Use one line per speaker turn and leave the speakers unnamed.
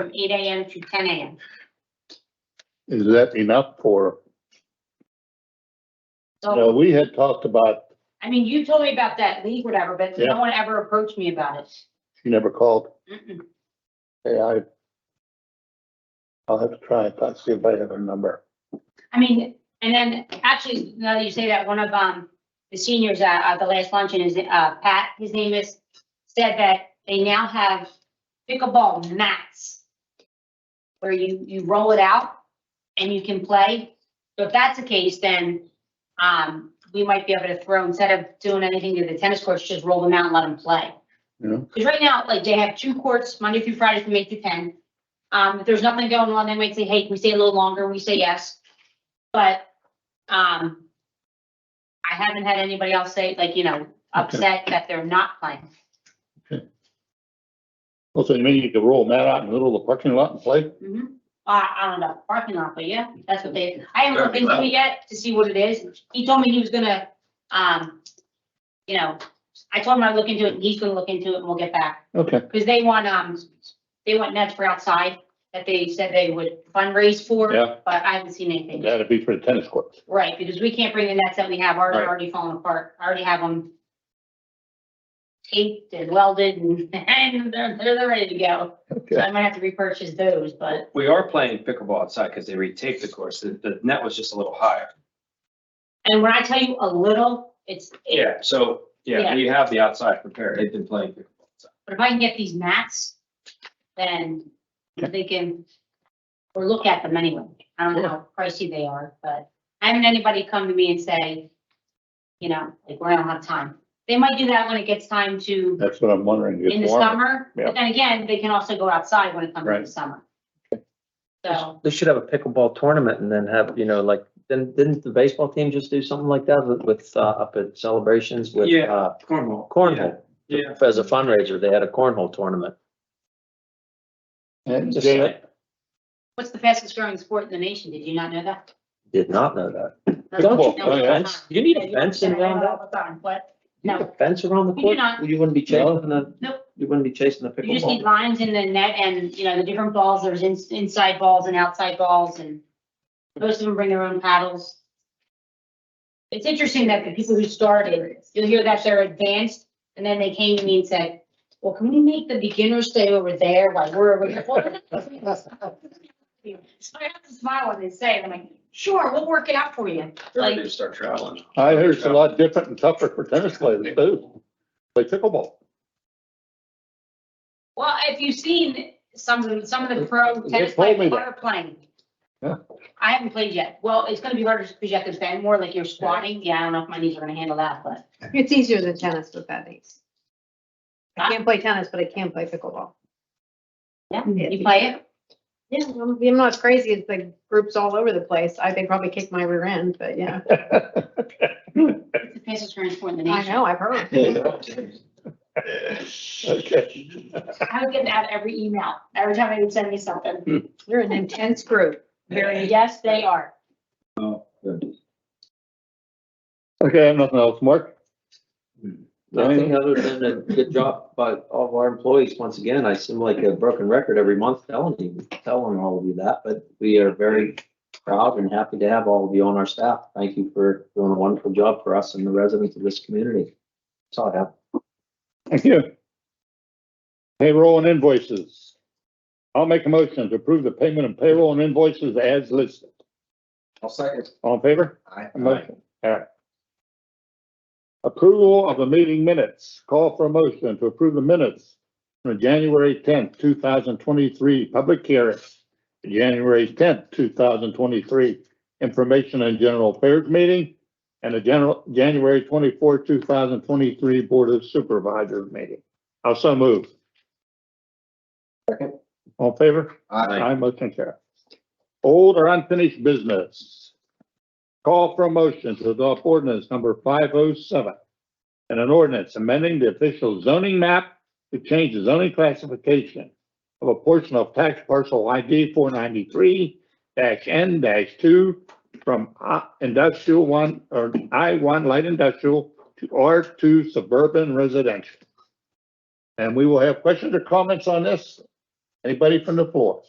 from eight AM to ten AM.
Is that enough for,
So, Oh.
no, we had talked about,
I mean, you told me about that league, whatever, but
Yeah.
no one ever approached me about it.
she never called.
Mm-mm.
Hey, I, I'll have to try and find- see if I have her number.
I mean, and then actually, now that you say that, one of, um, the seniors at, at the last luncheon is, uh, Pat, his name is, said that they now have pickleball mats where you, you roll it out and you can play. So if that's the case, then, um, we might be able to throw, instead of doing anything to the tennis courts, just roll them out and let them play.
Yeah.
Because right now, like, they have two courts, Monday through Friday from eight to ten. Um, if there's nothing going on, they might say, hey, can we stay a little longer? We say yes. But, um, I haven't had anybody else say, like, you know, upset that they're not playing.
Well, so you mean you could roll Matt out in the middle of the parking lot and play?
Mhm. I, I don't know, parking lot, but yeah, that's what they, I haven't looked into it yet to see what it is. He told me he was gonna, um, you know, I told him I'd look into it, and he's gonna look into it, and we'll get back.
Okay,
Because they want, um, they want nets for outside that they said they would fundraise for.
Yeah.
But I haven't seen anything.
that'd be for the tennis courts.
Right, because we can't bring the nets that we have, already
Right.
already falling apart. I already have them taped and welded and, and they're, they're they're ready to go. So
Okay,
I might have to repurchase those, but
We are playing pickleball outside because they retaped the course. The, the net was just a little higher.
And when I tell you a little, it's, it-
Yeah, so, yeah, we have the outside prepared. They've been playing pickleball. outside.
but if I can get these mats, then I'm thinking, or look at them anyway. I don't know how pricey they are, but I haven't anybody come to me and say, you know, like, we're not have time. They might do that when it gets time to,
that's what I'm wondering. it's
in the
warmer.
summer,
Yeah.
but then again, they can also go outside when it comes to
Right.
the summer. So,
They should have a pickleball tournament and then have, you know, like, then, didn't the baseball team just do something like that with- with, uh, up at celebrations with,
Yeah.
uh,
Cornhole.
cornhole?
Yeah.
As a fundraiser, they had a cornhole tournament.
And
Just
Janet,
saying.
what's the fastest growing sport in the nation? Did you not know that?
Did not know that.
That's-
Don't
you
no,
Oh,
need a
it's not.
fence? You need a
Yeah, you
fence
don't say
around
that
that?
all the time, But,
You need a
no,
Fence around the
We do
court?
not.
You wouldn't be chasing the.
Nope.
You wouldn't be chasing the
you just need
pickleball.
lines in the net and, you know, the different balls, there's ins- inside balls and outside balls and most of them bring their own paddles. It's interesting that the people who started, you'll hear that they're advanced and then they came to me and said, well, can we make the beginners stay over there while we're over here? So I have to smile when they say, it. I'm like, sure, we'll work it out for you.
I need
Like,
to start traveling.
I heard it's a lot different and tougher for tennis players too. Play pickleball.
well, if you've seen some, of the- some of the pro
They
tennis
told me
players
that.
are playing.
Yeah.
I haven't played yet. Well, it's gonna be harder because you have to bend more like you're squatting. Yeah, I don't know if my knees are gonna handle that, but
It's easier than tennis with bad knees. I can't play tennis, but I can play pickleball.
yeah,
Yeah.
you play it.
Yeah, I'm I'm not as crazy as the groups all over the place. I think probably kick my rear end, but yeah,
It's the fastest growing sport in the
I
nation.
know, I've heard.
Okay.
I would get that every email, every time they would send me something.
Hmm.
You're an intense group.
Very, yes, they are.
Okay, I have nothing else, Mark?
Nothing other than a good job by all of our employees. Once again, I seem like a broken record every month telling you, telling all of you that, but we are very proud and happy to have all of you on our staff. Thank you for doing a wonderful job for us and the residents of this community. That's all I have.
Thank you. Payroll and invoices. I'll make a motion to approve the payment of payroll and invoices as listed.
I'll second.
All in favor?
Aye.
Motion. All right. Approval of the meeting minutes. Call for a motion to approve the minutes from the January tenth, two thousand twenty-three, public hearing. January tenth, two thousand twenty-three, information and general affairs meeting. And the general, January twenty-four, two thousand twenty-three, Board of Supervisors meeting. I'll so move.
Second.
All in favor? I motion carries. Old or unfinished business. Call for a motion to adopt ordinance number five oh seven. And an ordinance amending the official zoning map to change the zoning classification of a portion of tax parcel ID four ninety-three N two from I- industrial one or I one light industrial to R two suburban residential. And we will have questions or comments on this Anybody from the floor?